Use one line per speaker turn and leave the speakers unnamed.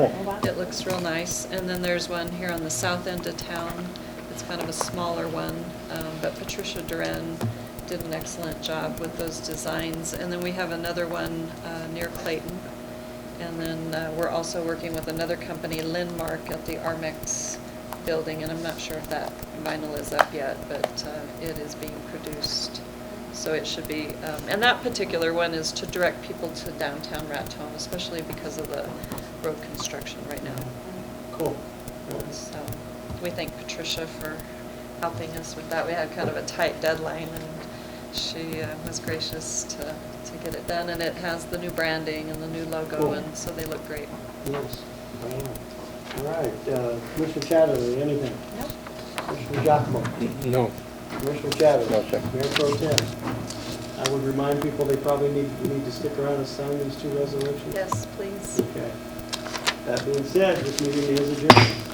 It looks real nice. And then there's one here on the south end of town. It's kind of a smaller one, um, but Patricia Duran did an excellent job with those designs. And then we have another one uh, near Clayton. And then uh, we're also working with another company, Linmark, at the Armex building. And I'm not sure if that vinyl is up yet, but uh, it is being produced. So it should be, um, and that particular one is to direct people to downtown Raton, especially because of the road construction right now.
Cool.
So we thank Patricia for helping us with that. We had kind of a tight deadline, and she uh, was gracious to, to get it done. And it has the new branding and the new logo,
Cool.
and so they look great.
Yes. All right, uh, Commissioner Chatterley, anything?
Yep.
Commissioner Giacomo?
No.
Commissioner Chatterley?
No, sir.
Mayor Pro Tem? I would remind people they probably need, need to stick around and sign these two resolutions.
Yes, please.
Okay. That being said, this meeting is adjourned.